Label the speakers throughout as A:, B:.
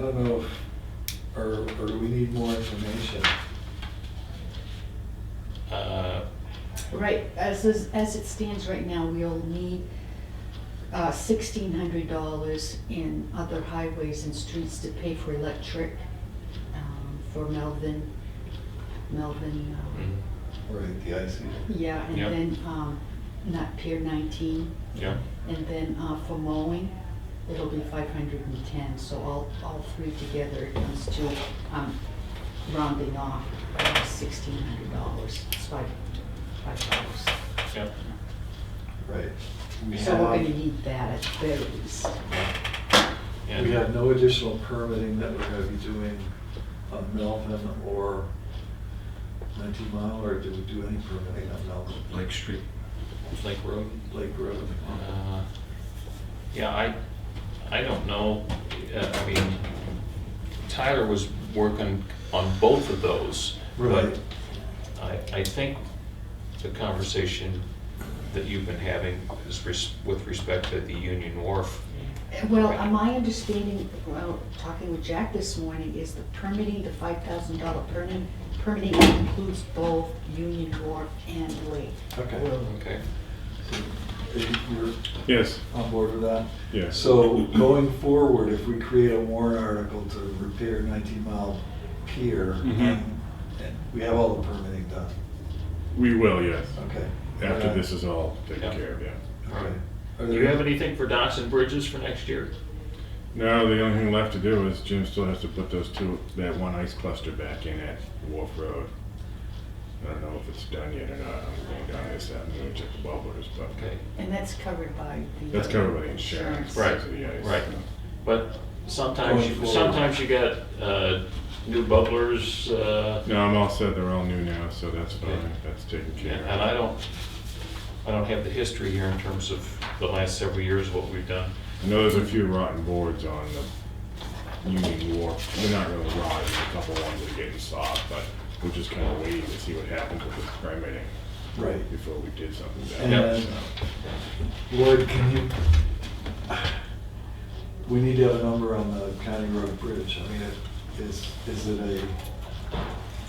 A: I don't know, if- or, or do we need more information?
B: Uh,
C: Right, as, is- as it stands right now, we'll need uh, sixteen hundred dollars in other highways and streets to pay for electric um, for Melvin, Melvin, uh,
B: mm,
A: Right, the IC.
C: yeah, and
B: Yeah.
C: then um, not Pier nineteen,
B: Yeah,
C: and then uh, for mowing, it'll be five hundred and ten, so all, all three together it comes to um, rounding off uh, sixteen hundred dollars, it's five, five dollars.
B: yeah.
A: Right. We
C: So we're gonna
A: have,
C: need that at the very least.
B: And-
A: we have no additional permitting that we're gonna be doing on Melvin or nineteen mile, or do we do any permitting on Melvin?
D: Lake Street.
B: Lake Road.
A: Lake Road?
B: Uh, Yeah, I, I don't know, Uh, I mean, Tyler was working on both of those.
A: Right.
B: But I, I think the conversation that you've been having is res- with respect to the Union Wharf.
C: Well, uh, my understanding, well, talking with Jack this morning, is the permitting, the five thousand dollar permitting, permitting includes both Union Wharf and Lake.
A: Okay.
B: Okay,
A: You're
D: Yes.
A: on board with that?
D: Yes.
A: So going forward, if we create a warrant article to repair 19 Mile Pier,
D: Mhm.
A: and we have all the permitting done,
D: We will, yes.
A: okay?
D: After this is all taken
B: Yeah.
D: care of, yeah.
A: Okay. Are
B: do you
A: there-
B: have anything for docks and bridges for next year?
D: Now, the only thing left to do is Jim still has to put those two, that one ice cluster back in at Wharf Road. I don't know if it's done yet or not. I'm going down this avenue to check the bubblers, but
B: Okay,
C: And that's covered by the.
D: that's covered by the insurance.
B: Right,
D: so the ice,
B: right.
D: you know.
B: but sometimes,
A: Going
B: you-
A: forward.
B: sometimes you got uh, new bubblers, uh,
D: No, I'm all set. They're all new now, so that's
B: Okay.
D: fine. That's taken care of.
B: And I don't, I don't have the history here in terms of the last several years, what we've done.
D: I know there's a few rotten boards on the Union Wharf. They're not really rotten, a couple ones that are getting soft, but we're just kind of waiting to see what happens with this permitting
A: Right.
D: before we did something about it.
A: And Lloyd, can you, we need to have a number on the County Road Bridge. I mean, it- is, is it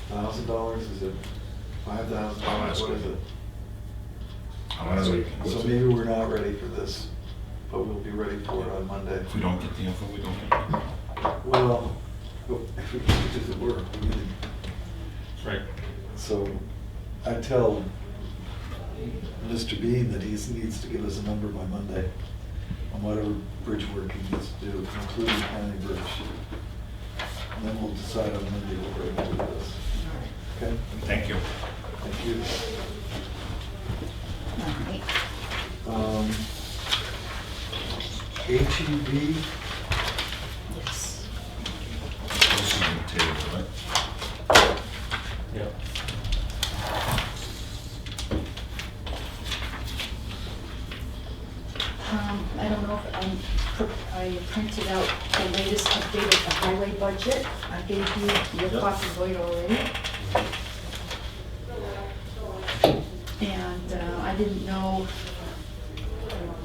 A: a thousand dollars? Is it five thousand
B: I'll
A: dollars?
B: ask
A: What is
B: him.
A: it?
D: Honestly,
A: So maybe we're not ready for this, but we'll be ready for it on Monday.
E: If we don't get the info, we don't get the info.
A: Well, if we can do the work, we need
B: Right.
A: to- so I tell Mr. Bean that he needs to give us a number by Monday on whatever bridge work he needs to do, including County Bridge. And then we'll decide on Monday what we're gonna do with this, okay?
E: Thank you.
A: Thank you.
C: All right.
A: Um, E HEB,
C: Yes.
E: This is on the table, right?
B: Yeah.
C: Um, I don't know if, um, pr- I printed out the latest update of the highway budget. I gave you your
E: Yep.
C: copy of it already. And, uh, I didn't know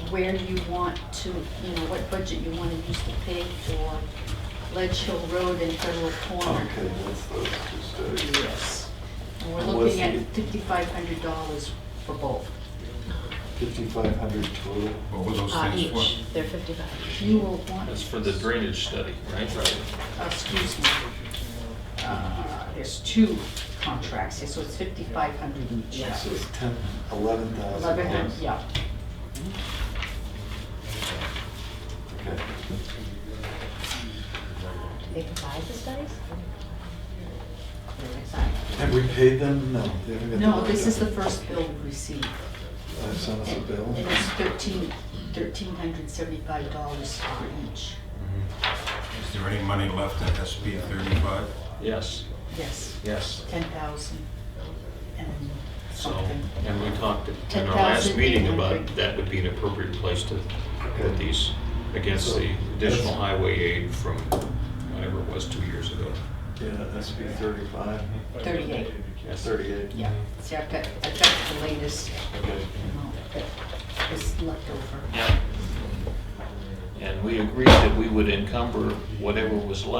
C: where you want to, you know, what budget you wanna use to pay for Ledge Hill Road and Federal Corner.
A: okay, that's those two studies.
C: Yes. And we're
A: And what's
C: looking at
A: the-
C: fifty-five hundred dollars for both.
A: Fifty-five hundred total.
E: What were those
F: Uh,
E: things
F: each,
E: for?
F: they're fifty-five.
C: You will want.
B: That's for the drainage study, right? Right.
C: Uh, excuse me, uh, there's two contracts here, so it's fifty-five hundred each.
A: So it's ten, eleven thousand.
C: Eleven hundred, yeah.
A: Okay.
F: They provide the studies?
A: Have we paid them? No. they haven't got
C: No,
A: bill
C: this
A: yet.
C: is the first bill we received.
A: They've sent Uh, us a bill?
C: And it's thirteen, thirteen hundred seventy-five dollars for each,
E: Is there any money left at SB 35?
B: Yes,
C: yes,
B: yes.
C: ten thousand and
B: So,
C: something.
B: and we talked in our last meeting about that would be an appropriate place to put these against the additional highway aid from whatever it was two years ago.
A: Yeah, SB thirty-five.
C: Thirty-eight,
A: Yeah, thirty-eight.
C: yeah, see, I've got, I've got the latest,
A: Okay.
C: you know, that is left over.
B: Yeah. And we agreed that we would encumber whatever was left